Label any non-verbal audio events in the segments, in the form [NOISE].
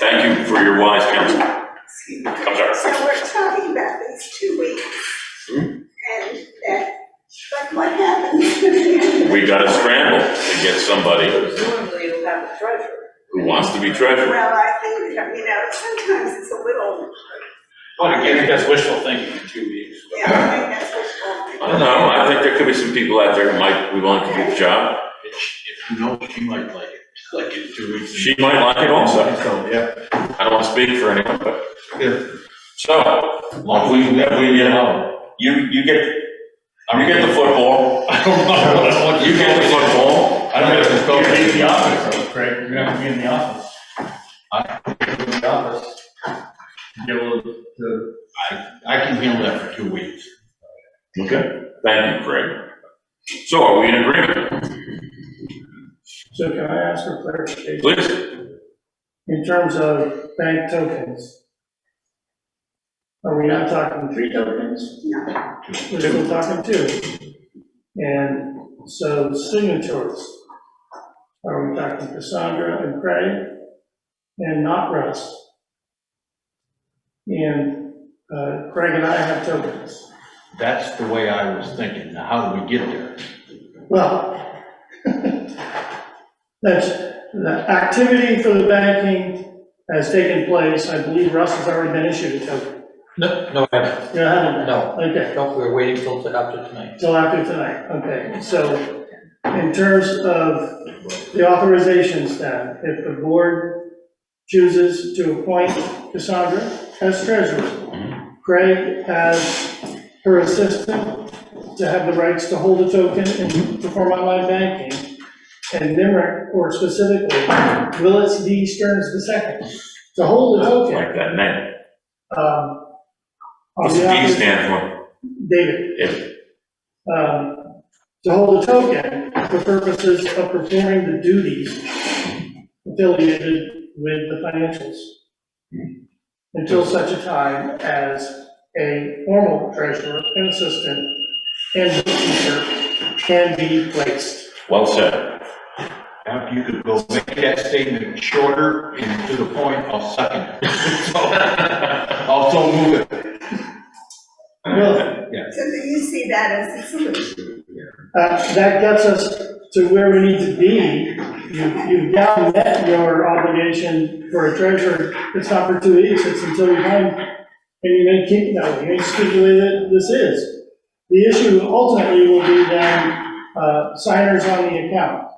Thank you for your wise counsel. Excuse me. I'm sorry. So we're talking about these two weeks. Hmm. And that, but what happens? We gotta scramble to get somebody Presumably you'll have a treasurer. who wants to be treasurer. Well, I think, you know, sometimes it's a little, Well, again, that's wishful thinking in two weeks. yeah, I think that's what's I don't know, I think there could be some people out there who might be willing to do the job. If you know, she might like it, like in two weeks. She might like it also. So, yeah, I don't wanna speak for anyone, but. yeah. So, Long we, we, we, you know. you, you get, you get the football, I don't know. you get the football. I don't know. You're gonna be in the office, Craig, you're gonna be in the office. I, in the office. Be able to. I, I can handle that for two weeks. Okay. Thank you, Craig. So are we in agreement? So can I ask for clarification? Please, In terms of bank tokens, are we not talking three tokens? No. We're still talking two. And so signatures, are we talking Cassandra and Craig and not Russ? And uh, Craig and I have tokens. That's the way I was thinking. Now, how do we get there? Well, that's, the activity for the banking has taken place. I believe Russ has already been issued a token. No, no, I haven't. You haven't? no, Okay, no, we're waiting till, till after tonight. till after tonight, okay. So in terms of the authorizations then, if the board chooses to appoint Cassandra as treasurer, Craig as her assistant to have the rights to hold a token and perform online banking, and Nimerick, or specifically Willis D. Stearns the second, to hold a token. like that name. um, on What's the behalf D of- stand for? David. If, um, to hold a token for purposes of performing the duties affiliated with the financials until such a time as a formal treasurer and assistant and bookkeeper can be placed. well said. Now, if you could go make that statement shorter and to the point, I'll second it. [LAUGHS] So, I'll so move it. Well, So do you see that as a solution? uh, that gets us to where we need to be. You- You've now met your obligation for a treasurer. It's not for two weeks, it's until we find, and you may keep, no, you may stipulate that this is. The issue ultimately will be then uh, signers on the account,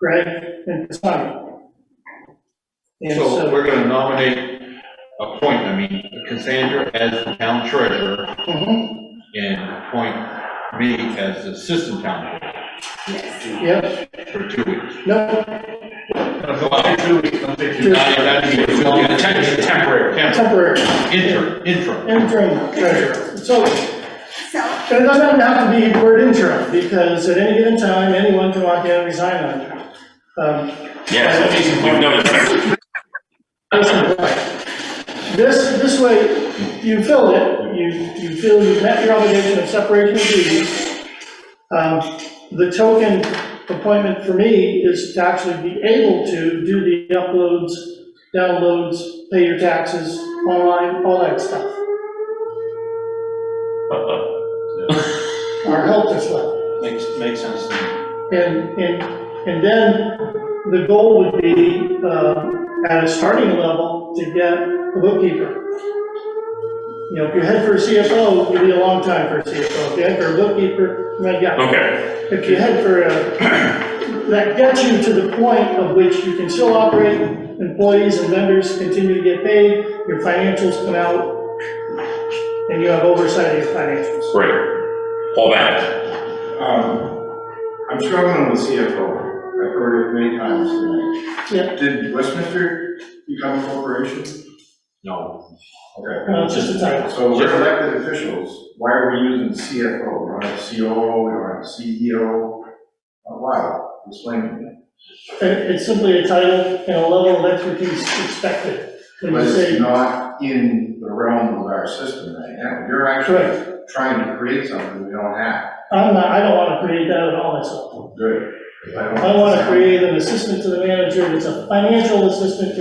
Greg and Cassandra. And So so, we're gonna nominate, appoint, I mean, Cassandra as the town treasurer mhm, and appoint me as the assistant town Yes. yep, treasurer for two weeks. no, Not- not even- Temporary. temporary, Interim, interim. interim treasurer. So So, But it doesn't have to be the word interim, because at any given time, anyone can walk in and resign on it. Um, Yes, we've noticed that. listen, This, this way, you fill it, you, you feel you've met your obligation of separation of duties. Um, The token appointment for me is to actually be able to do the uploads, downloads, pay your taxes, online, all that stuff. Our help is left. Makes, makes sense to me. And, and, and then the goal would be, uh, at a starting level, to get a bookkeeper. You know, if you head for a CFO, you'd be a long time for a CFO. If you head for a bookkeeper, you might Oh. get, [LAUGHS] Okay, if you head for a, that gets you to the point of which you can still operate, employees and vendors continue to get paid, your financials come out, and you have oversight of your financials. great. Paul Bennett, Um, I'm struggling with CFO. I've heard it many times tonight. Yeah. Did Westminster become a corporation? No, Okay. Uh, just a title. So we're elected officials. Why are we using CFO? We don't have COO, we don't have CEO. Uh, Why? Explain to me. It- It's simply a title and a level of expertise expected. When But you it's say, not in the realm of our system right now. You're actually trying to create something we don't have. I'm not, I don't want to create that at all myself. Good. I want to create an assistant to the manager that's a financial assistant to